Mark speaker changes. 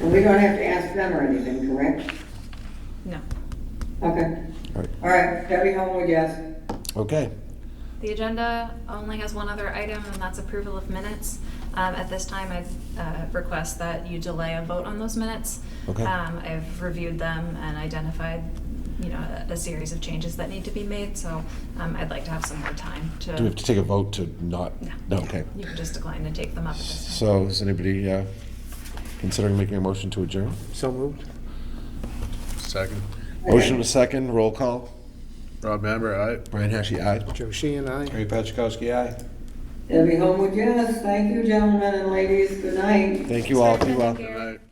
Speaker 1: Well, we don't have to ask them or anything, correct?
Speaker 2: No.
Speaker 1: Okay.
Speaker 3: Right.
Speaker 1: All right, Debbie Homewood, yes.
Speaker 3: Okay.
Speaker 2: The agenda only has one other item, and that's approval of minutes. Um, At this time, I uh, request that you delay a vote on those minutes.
Speaker 3: Okay.
Speaker 2: Um, I've reviewed them and identified, you know, a- a series of changes that need to be made, so um, I'd like to have some more time to...
Speaker 3: Do we have to take a vote to not?
Speaker 2: No.
Speaker 3: okay.
Speaker 2: You can just decline to take them up at this time.
Speaker 3: So is anybody uh, considering making a motion to adjourn?
Speaker 4: So moved.
Speaker 5: Second.
Speaker 3: Motion to second, roll call.
Speaker 5: Rob Amber, aye.
Speaker 3: Brian Heskey, aye.
Speaker 4: Joe Sheehan, aye.
Speaker 5: Harry Patchakowski, aye.
Speaker 1: Debbie Homewood, yes. Thank you, gentlemen and ladies. Good night.
Speaker 3: Thank you all. Be well.
Speaker 5: Good night.